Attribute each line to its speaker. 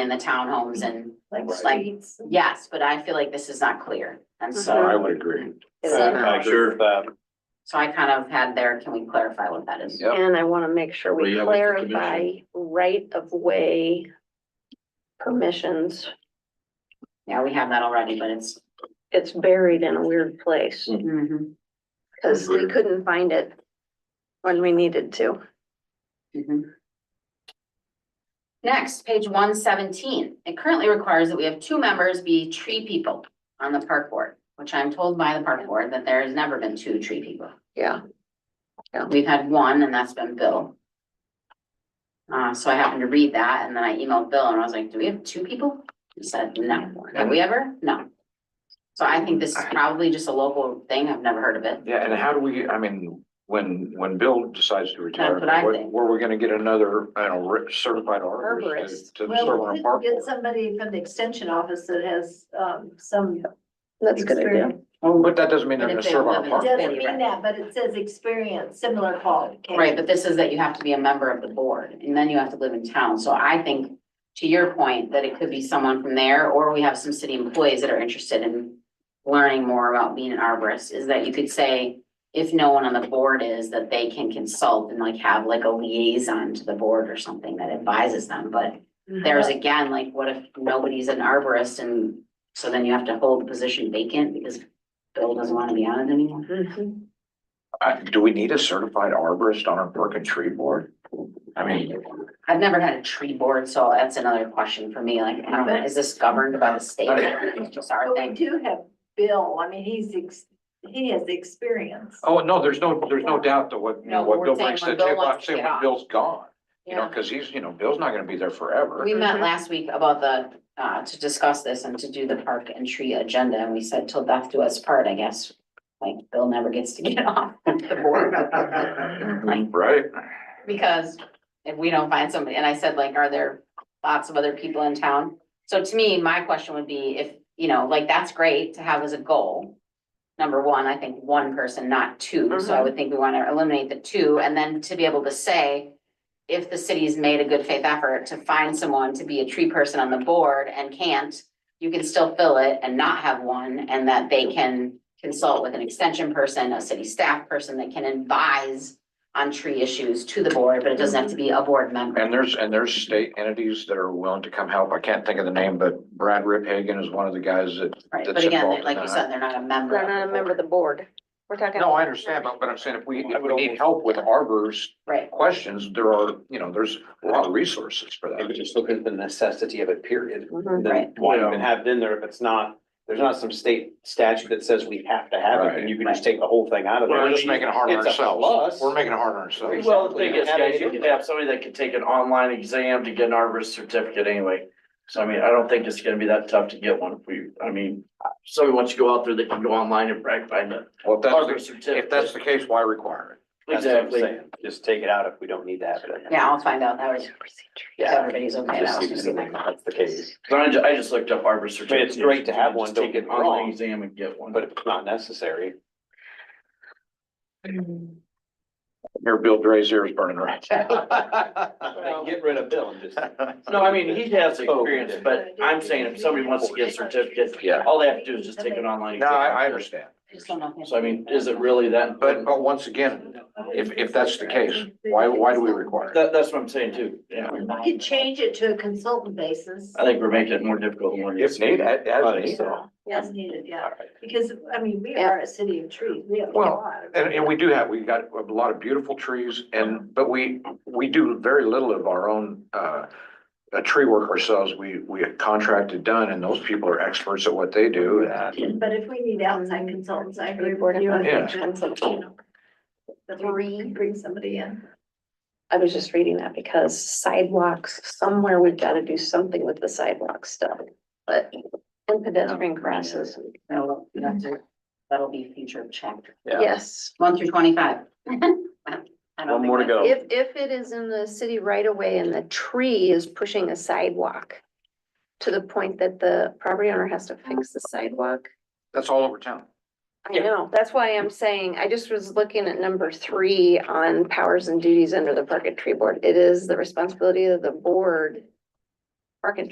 Speaker 1: in the townhomes and,
Speaker 2: like
Speaker 3: Right.
Speaker 2: streets.
Speaker 1: yes, but I feel like this is not clear. And so,
Speaker 3: I would agree.
Speaker 1: so
Speaker 3: I agree with that.
Speaker 1: so I kind of had there, can we clarify what that is?
Speaker 3: Yep.
Speaker 4: And I want to make sure
Speaker 3: Well,
Speaker 4: we
Speaker 3: yeah, with the commission.
Speaker 4: clarify right of way permissions.
Speaker 1: Yeah, we have that already, but it's,
Speaker 4: It's buried in a weird place
Speaker 1: mhm,
Speaker 4: because we couldn't find it when we needed to.
Speaker 1: mhm. Next, page one seventeen, it currently requires that we have two members be tree people on the park board, which I'm told by the park board that there has never been two tree people.
Speaker 4: Yeah.
Speaker 1: We've had one and that's been Bill. Uh, so I happened to read that and then I emailed Bill and I was like, do we have two people? He said, no. Have we ever? No. So I think this is probably just a local thing. I've never heard of it.
Speaker 3: Yeah, and how do we, I mean, when, when Bill decides to retire,
Speaker 1: That's what I
Speaker 3: where,
Speaker 1: think.
Speaker 3: where are we gonna get another, I don't know, re- certified arborist
Speaker 4: Arborist.
Speaker 3: to to serve
Speaker 2: Well,
Speaker 3: on
Speaker 2: we
Speaker 3: a park
Speaker 2: could get
Speaker 3: board?
Speaker 2: somebody from the extension office that has, um, some
Speaker 4: That's a good idea.
Speaker 2: experience.
Speaker 3: But that doesn't mean they're
Speaker 1: But
Speaker 3: gonna
Speaker 1: if they
Speaker 3: serve
Speaker 1: live
Speaker 3: on a
Speaker 1: in
Speaker 3: park.
Speaker 1: the-
Speaker 2: Doesn't mean that, but it says experience, similar qualification.
Speaker 1: Right, but this is that you have to be a member of the board and then you have to live in town. So I think to your point that it could be someone from there or we have some city employees that are interested in learning more about being an arborist is that you could say if no one on the board is, that they can consult and like have like a liaison to the board or something that advises them. But there's again, like what if nobody's an arborist and so then you have to hold the position vacant because Bill doesn't want to be on it anymore?
Speaker 4: Mhm.
Speaker 3: Uh, do we need a certified arborist on our park and tree board? I mean,
Speaker 1: I've never had a tree board, so that's another question for me, like, I don't know, is this governed by the state? It's just our
Speaker 2: But
Speaker 1: thing.
Speaker 2: we do have Bill, I mean, he's, ex- he has experience.
Speaker 3: oh, no, there's no, there's no doubt that what, you know,
Speaker 1: No,
Speaker 3: what
Speaker 1: we're
Speaker 3: Bill
Speaker 1: saying
Speaker 3: brings to
Speaker 1: when
Speaker 3: the
Speaker 1: Bill
Speaker 3: table,
Speaker 1: wants
Speaker 3: I'm
Speaker 1: to
Speaker 3: saying
Speaker 1: get
Speaker 3: when
Speaker 1: off.
Speaker 3: Bill's gone. You know,
Speaker 1: Yeah.
Speaker 3: cause he's, you know, Bill's not gonna be there forever.
Speaker 1: We met last week about the, uh, to discuss this and to do the park and tree agenda, and we said till death do us part, I guess. Like, Bill never gets to get off the board. Like,
Speaker 3: Right?
Speaker 1: Because if we don't find somebody, and I said like, are there lots of other people in town? So to me, my question would be if, you know, like, that's great to have as a goal. Number one, I think one person, not two, so I would think we wanna eliminate the two, and then to be able to say. If the city's made a good faith effort to find someone to be a tree person on the board and can't. You can still fill it and not have one, and that they can consult with an extension person, a city staff person that can advise on tree issues to the board, but it doesn't have to be a board member.
Speaker 3: And there's, and there's state entities that are willing to come help. I can't think of the name, but Brad Riphagen is one of the guys that.
Speaker 1: Right,
Speaker 3: that's
Speaker 1: but again,
Speaker 3: involved
Speaker 1: they-
Speaker 3: in
Speaker 1: like you
Speaker 3: that.
Speaker 1: said, they're not a member.
Speaker 4: They're not a member of the board. We're talking.
Speaker 3: No, I understand, but, but I'm saying if we, if we need help with arbors
Speaker 1: Right,
Speaker 3: questions, there are, you know, there's a lot of resources for
Speaker 5: I was
Speaker 3: that.
Speaker 5: just looking at the necessity of it, period.
Speaker 4: Mhm.
Speaker 5: And then
Speaker 1: Right.
Speaker 5: why even have it in there if it's not, there's not some state statute that says we have to have it, and you can just take the whole thing out of there.
Speaker 3: We're just making it hard on
Speaker 5: It's a
Speaker 3: ourselves.
Speaker 5: plus.
Speaker 3: We're making it hard on ourselves.
Speaker 6: Well, the thing is,
Speaker 5: Have
Speaker 6: guys,
Speaker 5: it
Speaker 6: you
Speaker 5: in
Speaker 6: could
Speaker 5: there.
Speaker 6: have somebody that could take an online exam to get an arborist certificate anyway. So I mean, I don't think it's gonna be that tough to get one if we, I mean, somebody wants to go out there, they can go online and brag find the
Speaker 3: Well, if that's,
Speaker 6: arborist
Speaker 3: the-
Speaker 6: certificate.
Speaker 3: if that's the case, why require
Speaker 5: That's what I'm
Speaker 6: Exactly.
Speaker 5: saying. Just take it out if we don't need to have it. in there.
Speaker 1: yeah, I'll find out, that was, if everybody's okay. that
Speaker 5: Just
Speaker 1: was
Speaker 5: use
Speaker 1: gonna
Speaker 5: it
Speaker 1: be
Speaker 5: when
Speaker 1: my-
Speaker 5: That's the case,
Speaker 6: So I just, I just looked up arborist
Speaker 5: I mean,
Speaker 6: certificate.
Speaker 5: it's great to have one,
Speaker 6: Just
Speaker 5: don't
Speaker 6: Take
Speaker 5: get
Speaker 6: an
Speaker 5: me
Speaker 6: online
Speaker 5: wrong,
Speaker 6: exam and get one.
Speaker 5: but if it's not necessary.
Speaker 4: Mm-hmm.
Speaker 3: it? Here, Bill Dre's ears burning right.
Speaker 5: Get rid of Bill and just.
Speaker 6: No, I mean, he has
Speaker 5: Oh.
Speaker 6: experience, but I'm saying if somebody wants to get a certificate,
Speaker 3: Yeah.
Speaker 6: all they have to do is just take an online.
Speaker 3: No,
Speaker 6: exam.
Speaker 3: I, I understand.
Speaker 1: I just don't know if-
Speaker 6: So I mean, is it really that?
Speaker 3: But, but once again, if, if that's the case, why, why do we require? it?
Speaker 6: That, that's what I'm saying too, yeah.
Speaker 2: You could change it to a consultant basis
Speaker 6: I think we're making it more difficult than what it is.
Speaker 3: If needed, as- as
Speaker 5: Right,
Speaker 3: needed.
Speaker 5: so,
Speaker 2: as needed, yeah,
Speaker 5: all right.
Speaker 2: because, I mean, we are a city of trees, we have a
Speaker 3: Well,
Speaker 2: lot. of-
Speaker 3: And, and we do have, we got a lot of beautiful trees and, but we, we do very little of our own, uh, uh, tree work ourselves. We, we have contracted done and those people are experts at what they do. and-
Speaker 2: But if we need outside consultants, I agree
Speaker 4: Board
Speaker 2: with
Speaker 4: of
Speaker 2: you. I
Speaker 3: Yeah.
Speaker 2: think that, you know, That we bring somebody in.
Speaker 4: I was just reading that because sidewalks, somewhere we've got to do something with the sidewalk stuff, but and pedestrian crosses,
Speaker 1: No, you have to- That'll be future chapter,
Speaker 5: Yeah.
Speaker 4: yes.
Speaker 1: one through twenty-five.
Speaker 5: One more to go.
Speaker 4: If, if it is in the city right away and the tree is pushing a sidewalk to the point that the property owner has to fix the sidewalk,
Speaker 3: That's all over town.
Speaker 4: I know, that's why I'm saying, I just was looking at number three on powers and duties under the park and tree board. It is the responsibility of the board, park and